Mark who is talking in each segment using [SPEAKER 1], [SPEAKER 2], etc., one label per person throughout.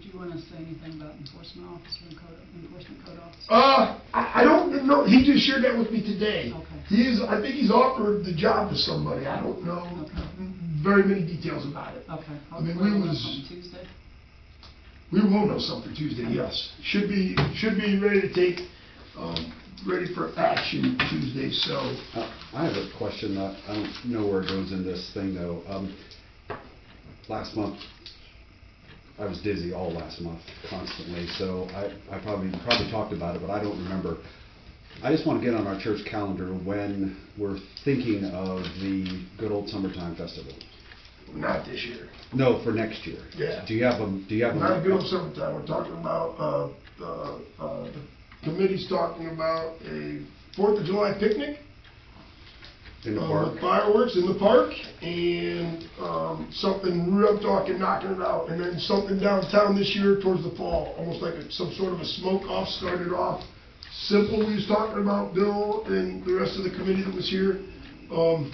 [SPEAKER 1] you want to say anything about enforcement officer and code, enforcement code officer?
[SPEAKER 2] Uh, I, I don't know, he just shared that with me today.
[SPEAKER 1] Okay.
[SPEAKER 2] He is, I think he's offered the job to somebody, I don't know very many details about it.
[SPEAKER 1] Okay.
[SPEAKER 2] Oh, I mean,
[SPEAKER 1] Hopefully
[SPEAKER 2] we
[SPEAKER 1] we'll know
[SPEAKER 2] was-
[SPEAKER 1] something Tuesday.
[SPEAKER 2] We will know something Tuesday, yes. Should be, should be ready to take, um, ready for action Tuesday, so.
[SPEAKER 3] Uh, I have a question, uh, I don't know where it goes in this thing though. Um, Last month, I was dizzy all last month constantly, so I, I probably, probably talked about it, but I don't remember. I just want to get on our church calendar when we're thinking of the good old summertime festival.
[SPEAKER 2] Not this year.
[SPEAKER 3] No, for next year.
[SPEAKER 2] Yeah.
[SPEAKER 3] Do you have a, do you have a?
[SPEAKER 2] Not good on summertime, we're talking about, uh, uh, uh, the committee's talking about a Fourth of July picnic.
[SPEAKER 3] In the
[SPEAKER 2] uh,
[SPEAKER 3] park?
[SPEAKER 2] with Fireworks in the park and, um, something, real- I'm talking knocking it out. And then something downtown this year towards the fall, almost like a- some sort of a smoke off, started off. Simple, we was talking about Bill and the rest of the committee that was here. Um,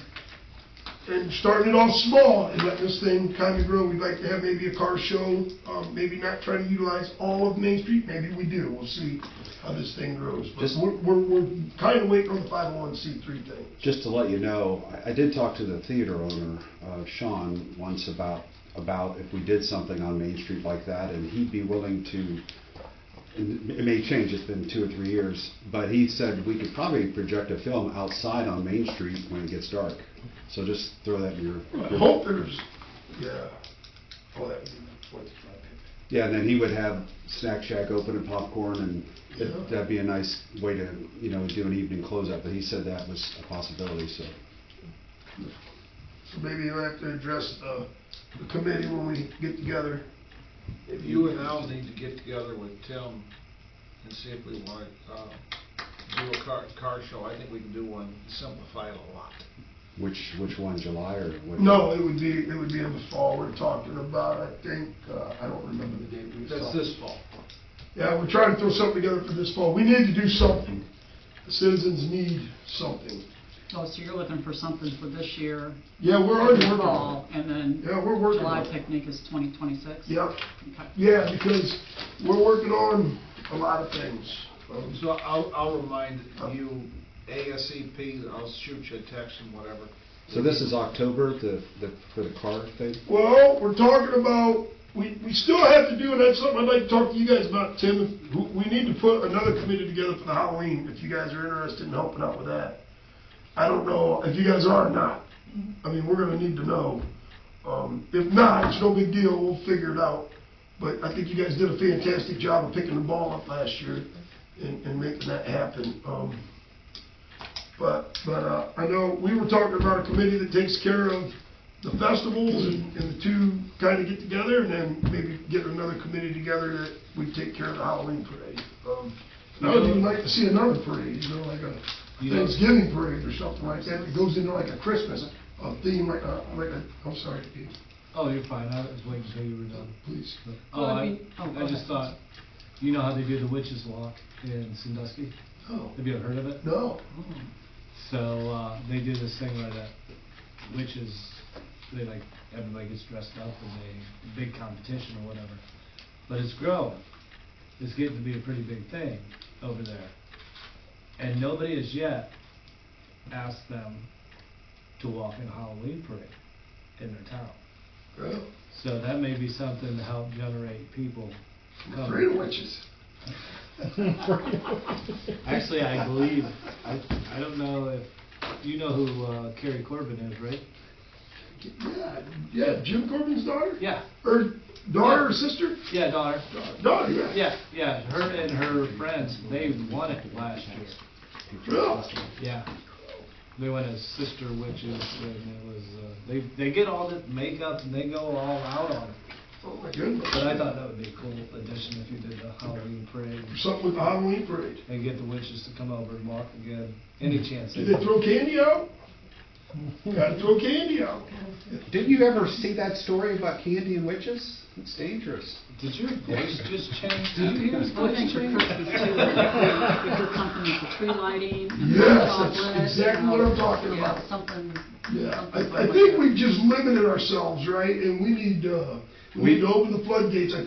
[SPEAKER 2] and starting it off small and letting this thing kind of grow. We'd like to have maybe a car show, um, maybe not try to utilize all of Main Street, maybe we do, we'll see how this thing grows. But
[SPEAKER 3] Just-
[SPEAKER 2] we're, we're, we're kind of waiting on the five oh one C three thing.
[SPEAKER 3] Just to let you know, I, I did talk to the theater owner, uh, Sean, once about, about if we did something on Main Street like that, and he'd be willing to, and it may change, it's been two or three years, but he said we could probably project a film outside on Main Street when it gets dark. So just throw that in your.
[SPEAKER 2] I hope there's, yeah, oh, that would be the fourth of July picnic.
[SPEAKER 3] Yeah, and then he would have Snack Shack open and popcorn, and
[SPEAKER 2] Yeah.
[SPEAKER 3] it- that'd be a nice way to, you know, do an evening closeout, but he said that was a possibility, so.
[SPEAKER 2] So maybe you'll have to address the, the committee when we get together.
[SPEAKER 4] You and Al need to get together with Tim and see if we want, uh, do a car, car show. I think we can do one, simplify it a lot.
[SPEAKER 3] Which, which one, July or? what?
[SPEAKER 2] No, it would be, it would be in the fall we're talking about, I think, uh, I don't remember the date we was
[SPEAKER 4] That's
[SPEAKER 2] talking.
[SPEAKER 4] this fall.
[SPEAKER 2] Yeah, we're trying to throw something together for this fall. We need to do something. The citizens need something.
[SPEAKER 1] Oh, so you're looking for something for this year?
[SPEAKER 2] Yeah, we're already working on
[SPEAKER 1] Fall, and then
[SPEAKER 2] it. Yeah, we're
[SPEAKER 1] the
[SPEAKER 2] working
[SPEAKER 1] July
[SPEAKER 2] on it.
[SPEAKER 1] picnic is 2026?
[SPEAKER 2] Yep,
[SPEAKER 1] Okay.
[SPEAKER 2] yeah, because we're working on a lot of things. Um,
[SPEAKER 4] So I'll, I'll remind you ASAP, I'll shoot you a text and whatever.
[SPEAKER 3] So this is October, the, the, for the car thing?
[SPEAKER 2] Well, we're talking about, we, we still have to do, and that's something I'd like to talk to you guys about, Tim. if- who- We need to put another committee together for the Halloween, if you guys are interested in helping out with that. I don't know if you guys are or not. I mean, we're gonna need to know. Um, if not, it's no big deal, we'll figure it out. But I think you guys did a fantastic job of picking the ball up last year and, and making that happen. Um, but, but, uh, I know, we were talking about a committee that takes care of the festivals and, and the two kind of get together and then maybe get another committee together that we take care of the Halloween parade. Um, and I would even like to see another parade, you know, like a Thanksgiving parade or something like that. It goes into like a Christmas, a theme like a, like a, I'm sorry, Dave,
[SPEAKER 5] Oh, you're fine, I was waiting until you were done.
[SPEAKER 2] please.
[SPEAKER 5] Oh,
[SPEAKER 1] Well, I
[SPEAKER 5] I,
[SPEAKER 1] mean- oh, go
[SPEAKER 5] I just
[SPEAKER 1] ahead.
[SPEAKER 5] thought, you know how they do the witches walk in Sandusky?
[SPEAKER 2] No.
[SPEAKER 5] Have you ever heard of it?
[SPEAKER 2] No.
[SPEAKER 1] Oh.
[SPEAKER 5] So, uh, they do this thing where the witches, they like, everybody gets dressed up and they, big competition or whatever. But it's growing, it's getting to be a pretty big thing over there. And nobody has yet asked them to walk in a Halloween parade in their town.
[SPEAKER 2] Well,
[SPEAKER 5] So that may be something to help generate people.
[SPEAKER 2] I'm
[SPEAKER 5] coming.
[SPEAKER 2] Afraid of witches.
[SPEAKER 5] Actually, I believe, I, I don't know if, you know who uh, Carrie Corbin is, right?
[SPEAKER 2] Yeah, yeah, Jim Corbin's daughter?
[SPEAKER 5] Yeah,
[SPEAKER 2] Or daughter or sister?
[SPEAKER 5] yeah, daughter.
[SPEAKER 2] Daughter, yeah.
[SPEAKER 5] Yeah, yeah, her and her friends, they won it last year.
[SPEAKER 2] Really?
[SPEAKER 5] Yeah. They went as sister witches and it was, uh, they, they get all the makeup and they go all out on it.
[SPEAKER 2] Oh, my goodness.
[SPEAKER 5] But I thought that would be a cool addition if you did the Halloween parade
[SPEAKER 2] Something with the Halloween parade.
[SPEAKER 5] and get the witches to come over and walk again, any chance.
[SPEAKER 2] Hmm. Did they throw candy out? Gotta throw candy out.
[SPEAKER 3] Didn't you ever see that story about candy and witches? It's dangerous.
[SPEAKER 5] Did your voice just change?
[SPEAKER 3] Did you hear his
[SPEAKER 1] Well, I think for Christmas too, if you're- if you're company for tree lighting and
[SPEAKER 2] Yes,
[SPEAKER 1] chocolate,
[SPEAKER 2] that's exactly what
[SPEAKER 1] you know,
[SPEAKER 2] I'm talking
[SPEAKER 1] yeah,
[SPEAKER 2] about.
[SPEAKER 1] Something.
[SPEAKER 2] Yeah,
[SPEAKER 1] something
[SPEAKER 2] I, I
[SPEAKER 1] like
[SPEAKER 2] think
[SPEAKER 1] that.
[SPEAKER 2] we've just limited ourselves, right? And we need, uh, we need to open the floodgates. I